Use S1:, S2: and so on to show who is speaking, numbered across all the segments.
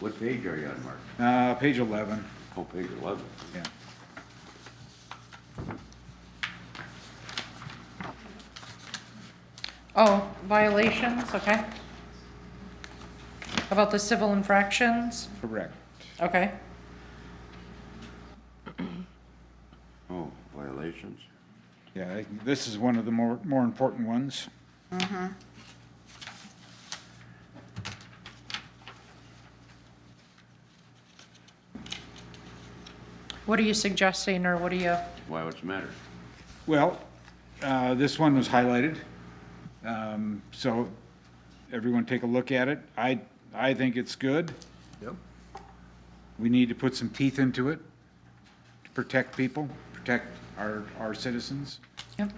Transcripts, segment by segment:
S1: What page are you on, Mark?
S2: Uh, page eleven,
S1: Oh, page eleven.
S2: yeah.
S3: Oh, violations, okay. About the civil infractions,
S2: Correct.
S3: okay.
S1: Oh, violations.
S2: Yeah, I- this is one of the more, more important ones.
S3: What are you suggesting, or what are you,
S1: Why, what's the matter?
S2: Well, uh, this one was highlighted, um, so everyone take a look at it. I, I think it's good.
S4: Yep.
S2: We need to put some teeth into it to protect people, protect our, our citizens.
S3: Yep.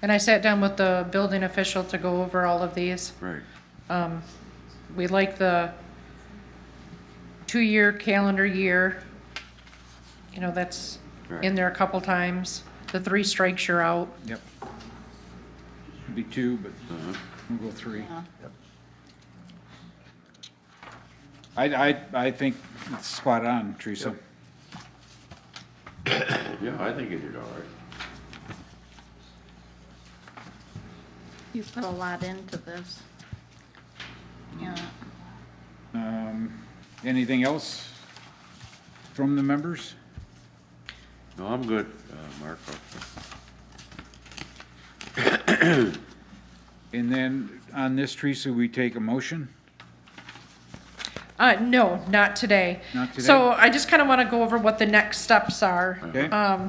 S3: and I sat down with the building official to go over all of these.
S1: Right.
S3: We like the two-year calendar year. You know, that's in
S1: Right.
S3: there a couple times. The three strikes you're out.
S2: Yep. Should Be two, but
S1: Uh-huh.
S2: we'll go three.
S4: Yep.
S2: I, I, I think it's spot on, Teresa.
S4: Yep.
S1: Yeah, I think you did all right.
S5: You put a lot into this. Yeah,
S2: Um, anything else from the members?
S1: No, I'm good, uh, Mark.
S2: And then on this, Teresa, we take a motion?
S3: Uh, no, not today.
S2: Not today?
S3: So I just kind of want to go over what the next steps are.
S2: Okay?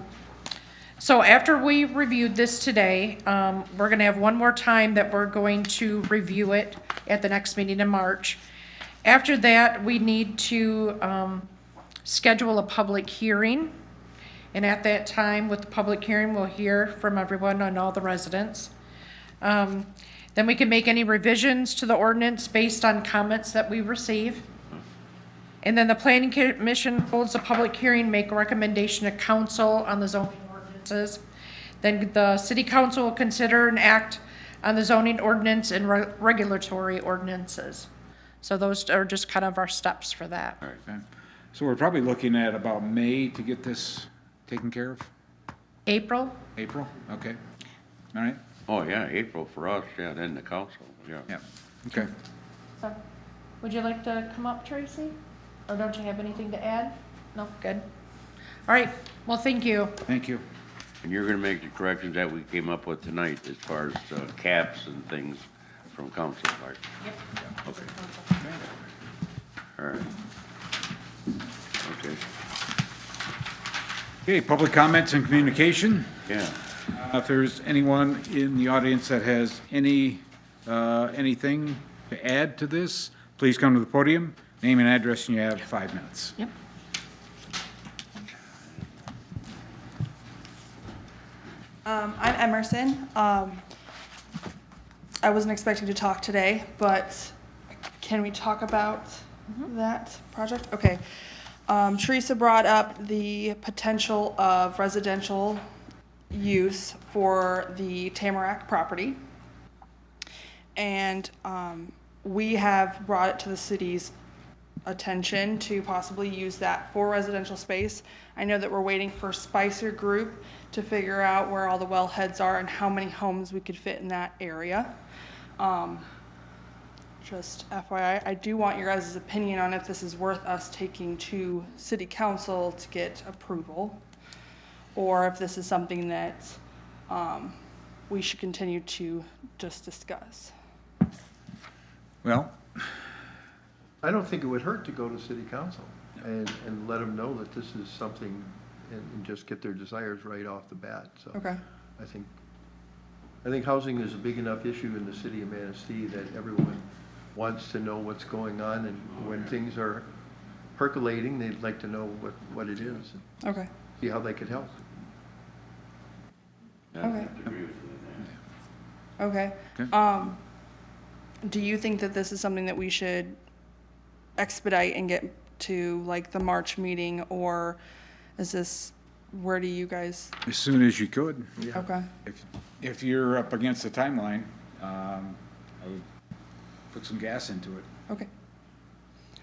S3: So after we reviewed this today, um, we're gonna have one more time that we're going to review it at the next meeting in March. After that, we need to, um, schedule a public hearing. And at that time, with the public hearing, we'll hear from everyone on all the residents. Um, then we can make any revisions to the ordinance based on comments that we receive. And then the planning commission holds a public hearing, make a recommendation to council on the zoning ordinances. Then the city council will consider and act on the zoning ordinance and re- regulatory ordinances. So those are just kind of our steps for that.
S2: Okay. So we're probably looking at about May to get this taken care of?
S3: April,
S2: April? Okay. All right,
S1: Oh, yeah, April for us, yeah, then the council, yeah.
S2: yeah, okay.
S3: so, would you like to come up, Tracy? Or don't you have anything to add? No, good. All right, well, thank you.
S2: Thank you.
S1: And you're gonna make the corrections that we came up with tonight as far as uh, caps and things from council, Mark? Yep. Okay. All right. Okay,
S2: Okay, public comments and communication.
S1: yeah.
S2: Uh, If there's anyone in the audience that has any, uh, anything to add to this, please come to the podium, name and address, and you have five minutes.
S3: Yep.
S6: Um, I'm Emerson. Um, I wasn't expecting to talk today, but can we talk about that project? Okay. Um, Teresa brought up the potential of residential use for the Tamarack property. And um, we have brought it to the city's attention to possibly use that for residential space. I know that we're waiting for Spicer Group to figure out where all the wellheads are and how many homes we could fit in that area. Um, Just FYI, I do want your guys' opinion on if this is worth us taking to city council to get approval, or if this is something that um, we should continue to just discuss.
S2: Well,
S4: I don't think it would hurt to go to city council and, and let them know that this is something and, and just get their desires right off the bat, so.
S6: Okay.
S4: I think, I think housing is a big enough issue in the city of Manistee that everyone wants to know what's going on and when things are percolating, they'd like to know what, what it is, and
S6: Okay.
S4: see how they could help.
S1: Yeah, I
S6: Okay.
S1: have to agree with you on that.
S6: Okay.
S2: Okay.
S6: Um, do you think that this is something that we should expedite and get to like the March meeting or is this, where do you guys,
S2: as soon as you could.
S6: okay,
S2: If, if you're up against the timeline, um, I would put some gas into it.
S6: okay,